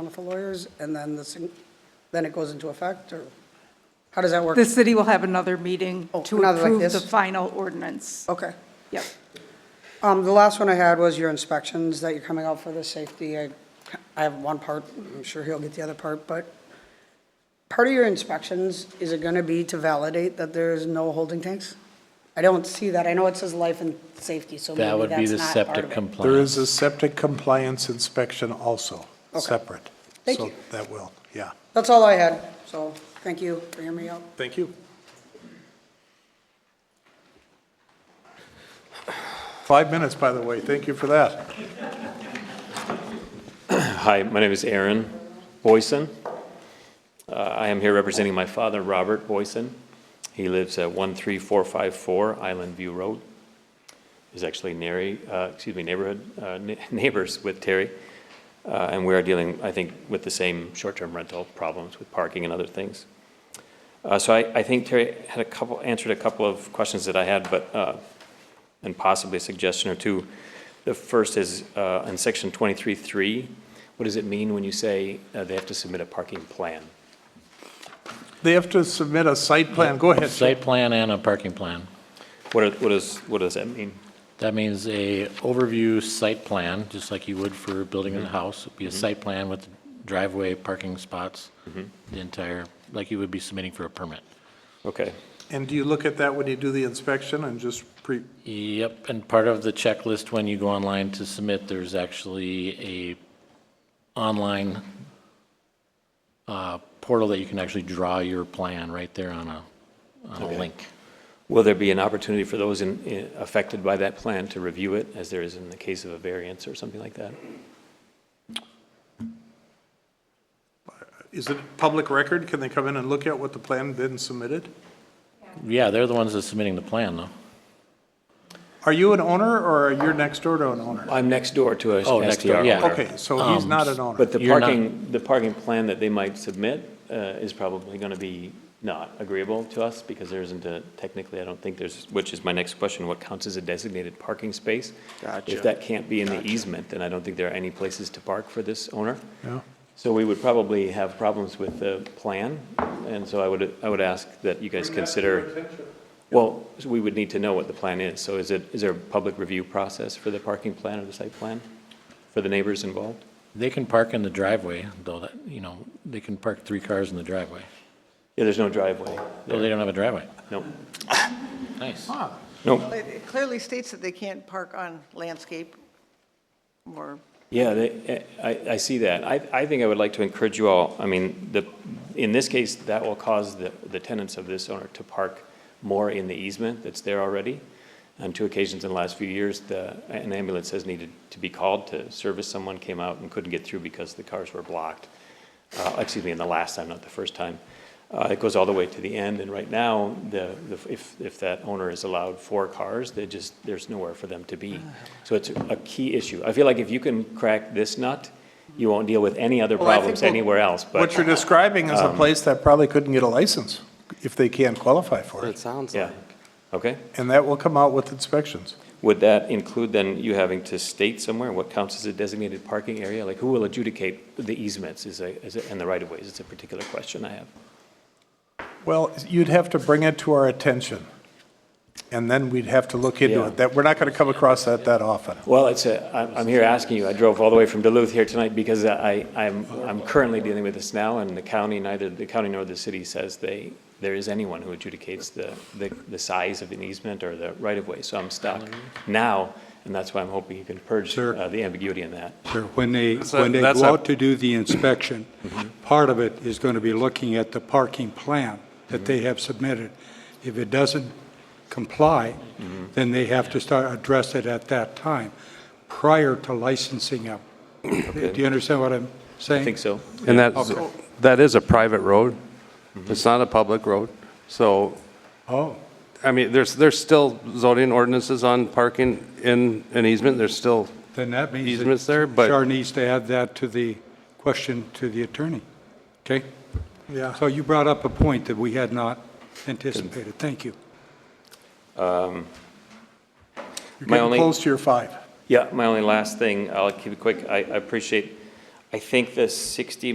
on for lawyers, and then the, sing- then it goes into effect, or how does that work? The city will have another meeting Oh, to another like approve the this? Oh. final ordinance. Okay. Yep. Um, the last one I had was your inspections that you're coming out for the safety. I, I have one part, I'm sure he'll get the other part, but part of your inspections, is it gonna be to validate that there's no holding tanks? I don't see that. I know it says life and safety, so That maybe would be the that's not part septic of it. compliance. There is a septic compliance inspection also, separate. Thank So you. That will, yeah. That's all I had, so thank you for hearing me out. Thank you. Five minutes, by the way. Thank you for that. Hi, my name is Aaron Boyson. Uh, I am here representing my father, Robert Boyson. He lives at 13454 Island View Road. He's actually nary, uh, excuse me, neighborhood, uh, ne- neighbors with Terry. Uh, And we are dealing, I think, with the same short-term rental problems with parking and other things. Uh, So I, I think Terry had a couple, answered a couple of questions that I had, but uh, and possibly a suggestion or two. The first is, uh, in section 23.3, what does it mean when you say uh, they have to submit a parking plan? They have to submit a site plan. Go ahead. Jim. Site plan and a parking plan. What are- what is, what does that mean? That means a overview site plan, just like you would for building Mm-hmm. a house. It'd Be a site plan with driveway, parking spots, Mm-hmm. the entire, like you would be submitting for a permit. Okay, And do you look at that when you do the inspection and just pre, Yep, and part of the checklist when you go online to submit, there's actually a online uh, portal that you can actually draw your plan right there on a, on a link. will there be an opportunity for those in- in- affected by that plan to review it, as there is in the case of a variance or something like that? is it public record? Can they come in and look at what the plan been submitted? Yeah, they're the ones that's submitting the plan, though. Are you an owner or are you next door to an owner? I'm next door to a Oh, next door, STR yeah. owner. Okay, so he's not an owner. But the You're not- parking, the parking plan that they might submit uh, is probably going to be not agreeable to us because there isn't a, technically, I don't think there's, which is my next question, what counts as a designated parking space? If that can't be in the easement, then I don't think there are any places to park for this owner. Yeah. So we would probably have problems with the plan, and so I would, I would ask that you guys consider. Well, so we would need to know what the plan is. So is it, is there a public review process for the parking plan or the site plan for the neighbors involved? They can park in the driveway, though, that, you know, they can park three cars in the driveway. Yeah, there's no driveway. Though they don't have a driveway. No, Nice. no. It it clearly states that they can't park on landscape or, Yeah, they, I, I see that. I, I think I would like to encourage you all, I mean, the, in this case, that will cause the, the tenants of this owner to park more in the easement that's there already. On two occasions in the last few years, the, an ambulance has needed to be called to service someone, came out and couldn't get through because the cars were blocked. Uh, excuse me, in the last time, not the first time. Uh, it goes all the way to the end, and right now, the, the- if, if that owner is allowed four cars, they just, there's nowhere for them to be. So it's a key issue. I feel like if you can crack this nut, you won't deal with any other Well, I think problems we'll- anywhere else, What you're but, Um, describing is a place that probably couldn't get a license if they can't qualify for It it. sounds yeah, like. okay? And that will come out with inspections. Would that include then you having to state somewhere what counts as a designated parking area? Like, who will adjudicate the easements is a, is a, and the right-of-ways? It's a particular question I have. Well, you'd have to bring it to our attention, and then we'd have to look into Yeah. it. That, we're not going to come across that that often. Well, it's a, I'm, I'm here asking you, I drove all the way from Duluth here tonight because I, I'm, I'm currently dealing with this now and the county, neither the county nor the city says they, there is anyone who adjudicates the, the, the size of an easement or the right-of-way, so I'm stuck now, and that's why I'm hoping you can purge Sure. uh, the ambiguity in that. Sure, when they, a- when they that's go a- out to do the inspection, part of it is going to be looking at the parking plan that they have submitted. If it doesn't comply, then they have to start, address it at that time, prior to licensing up. Do you understand what I'm saying? I think so. And that's, that is a private road. It's not a public road. So, Oh, I mean, there's, there's still zoning ordinances on parking in an easement. There's still, then that means. that Easements there, but- Char needs to add that to the question to the attorney, okay? Yeah. So you brought up a point that we had not anticipated. Thank you. You're My getting only- close to your five. Yeah, my only last thing, I'll keep it quick. I, I appreciate I think the 60